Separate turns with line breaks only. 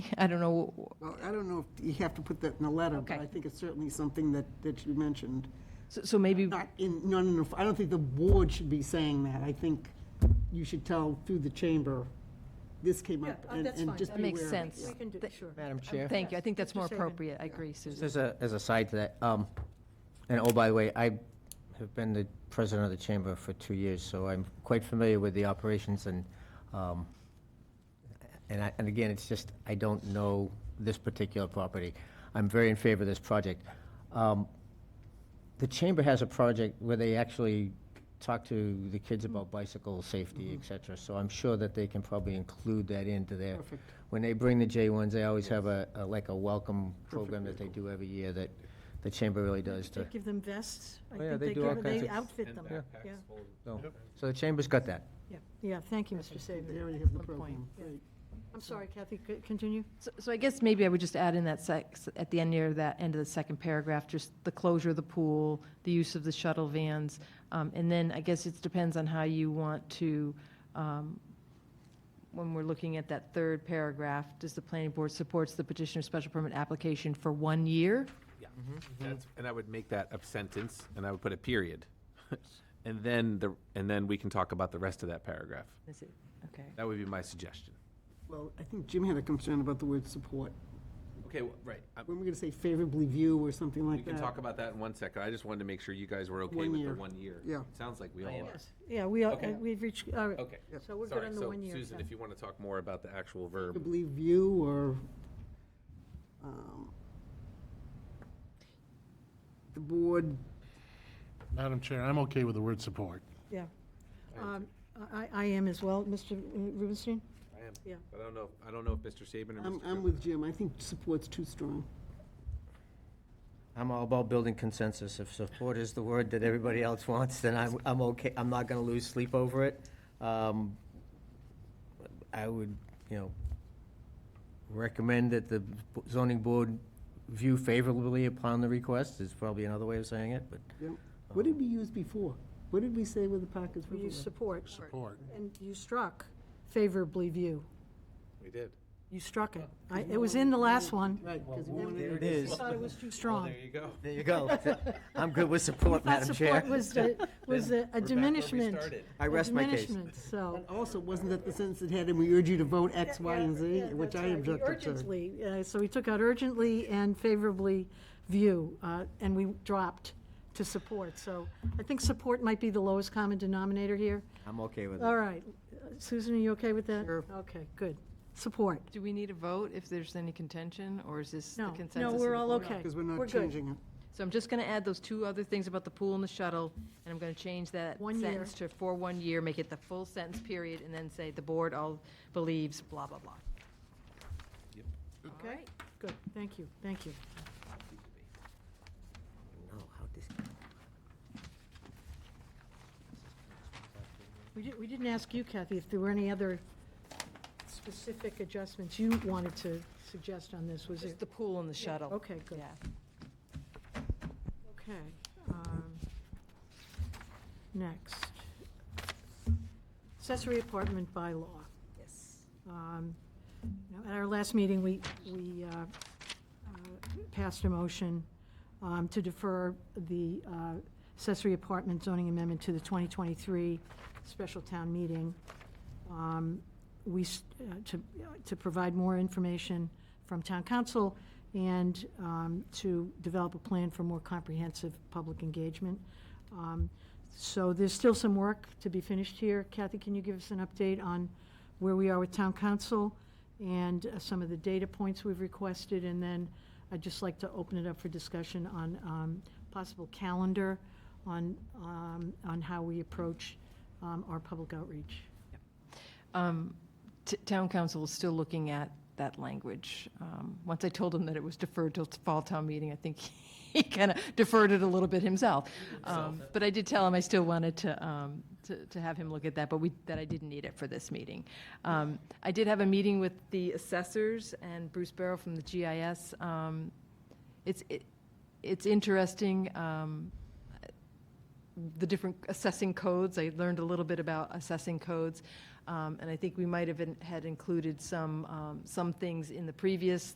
I don't know,
Well, I don't know if you have to put that in the letter, but
Okay.
I think it's certainly something that, that you mentioned.
so- so
Mm.
maybe,
Not in, not in, a- I don't think the board should be saying that. I think you should tell through the chamber, this came up,
Yeah, uh,
and
that's
and
fine.
just
That
be
makes
aware of it.
sense.
We can do,
Th-
sure.
Madam Chair?
thank you, I think that's
Yes,
more
Mr. Sagan.
appropriate, I agree, Susan.
As a, as a side to that, um, and oh, by the way, I have been the president of the chamber for two years, so I'm quite familiar with the operations and, um, and I, and again, it's just, I don't know this particular property. I'm very in favor of this project. Um, The chamber has a project where they actually talk to the kids about bicycle safety, et cetera, so I'm sure that they can probably include that into their
Perfect.
when they bring the J1s, they always have a, a- like a welcome program that they do every year that the chamber really does
They
to,
give them vests. I
Oh, yeah,
think
they
they
do all
give,
kinds
they
of-
outfit them. Yeah,
so, so the chamber's got that.
yeah, yeah, thank you, Mr.
They
Saban.
already have the
Excellent point.
program. Great.
I'm sorry, Kathy, c- continue?
So- So I guess maybe I would just add in that sec, at the end near that end of the second paragraph, just the closure of the pool, the use of the shuttle vans. Um, and then I guess it depends on how you want to, um, when we're looking at that third paragraph, does the planning board supports the petitioner's special permit application for one year?
Mm-hmm, That's- And I would make that a sentence, and I would put a period. And then the, and then we can talk about the rest of that paragraph.
Is it, okay.
That would be my suggestion.
Well, I think Jim had a concern about the word support.
Okay, well, right. I-
When we're going to say favorably view or something
We
like that.
can talk about that in one second. I just wanted to make sure you guys were okay
One
with
year.
the one year.
Yeah.
Sounds like we all are.
Yes, yeah, we are,
Okay.
uh, we've reached, all right.
Okay.
So we're good
Sorry,
on the
so
one year.
Susan,
yeah.
if you want to talk more about the actual verb.
Favorably view or, um, the board
Madam Chair, I'm okay with the word support.
Yeah. Um, I, I am as well, Mr. Rubenstein?
I am,
Yeah.
but I don't know, I don't know if Mr. Saban or
I'm,
Mr.
I'm
Cook-
with Jim. I think support's too strong.
I'm all about building consensus. If support is the word that everybody else wants, then I'm, I'm okay, I'm not gonna lose sleep over it. Um, I would, you know, recommend that the zoning board view favorably upon the request, is probably another way of saying it, but
Yep. What did we use before? What did we say with the Parkers
You
Riverway?
support.
Support.
And you struck favorably view.
We did.
You struck it. I, it was in the last one.
Right, 'cause we wanted-
there it
I
is.
thought it was too
Well,
strong.
there you go.
There you go. I'm good with support,
That
Madam Chair.
support was, the- was the-
We're
a
back where we
diminishment.
started.
I
a
rest my case.
diminishment, So.
Also, wasn't that the sentence that had, and we urge you to vote X, Y, and Z,
Yeah, yeah,
which
that's
I
right.
objected to?
Urgently, uh, so we took out urgently and favorably view, uh, and we dropped to support. So I think support might be the lowest common denominator here.
I'm okay with it.
All right, Uh, Susan, are you okay with that? Sure. Okay, good. Support.
Do we need a vote if there's any contention, or is this the
No,
consensus?
no,
of
we're
the
all
board?
okay.
Because we're not
good.
changing it.
So I'm just going to add those two other things about the pool and the shuttle, and I'm going to change that
One year.
sentence to for one year, make it the full sentence period, and then say the board all believes blah, blah, blah.
Okay, good, thank you, thank you.
Oh, how dis-
We didn't, we didn't ask you, Kathy, if there were any other specific adjustments you wanted to suggest on this, was it?
Just the pool and the shuttle.
Okay, good.
Yeah.
Okay. um, Next. Accessory apartment bylaw.
Yes.
Um, you know, At our last meeting, we, we uh, uh, passed a motion um, to defer the uh, accessory apartment zoning amendment to the 2023 special town meeting. Um, We, s- uh, to, to provide more information from town council and um, to develop a plan for more comprehensive public engagement. Um, So there's still some work to be finished here. Kathy, can you give us an update on where we are with town council and uh, some of the data points we've requested? And then I'd just like to open it up for discussion on um, possible calendar, on, um, on how we approach um, our public outreach.
Um, t- Town council is still looking at that language. Um, Once I told him that it was deferred till t- fall town meeting, I think he kind of deferred it a little bit himself. Um, But I did tell him I still wanted to, um, to- to have him look at that, but we, that I didn't need it for this meeting. Um, I did have a meeting with the assessors and Bruce Barrow from the GIS. Um, It's, it- it's interesting. um, the different assessing codes. I learned a little bit about assessing codes. Um, And I think we might have in- had included some, um, some things in the previous